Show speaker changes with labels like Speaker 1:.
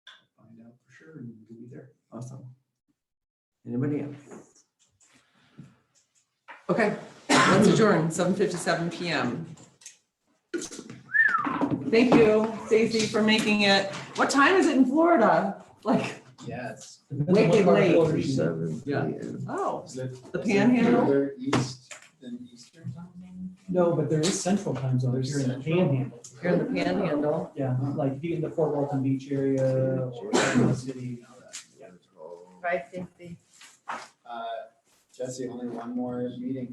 Speaker 1: sure, and we'll be there.
Speaker 2: Awesome. Anybody else? Okay, let's adjourn, seven fifty-seven PM. Thank you, Stacy, for making it. What time is it in Florida? Like,
Speaker 1: Yes.
Speaker 2: Wicked late.
Speaker 3: Seven.
Speaker 1: Yeah.
Speaker 3: p.m.
Speaker 2: oh,
Speaker 1: Is that
Speaker 2: the panhandle?
Speaker 3: Further East than Eastern time zone?
Speaker 4: No, but there is central time zone,
Speaker 3: There's
Speaker 4: here in the
Speaker 3: central?
Speaker 4: panhandle.
Speaker 2: You're in the panhandle.
Speaker 4: Yeah, like if you get into Fort Walton Beach area or Oklahoma City.
Speaker 3: Yeah.
Speaker 5: Five fifty.
Speaker 3: Uh, Jesse, only one more meeting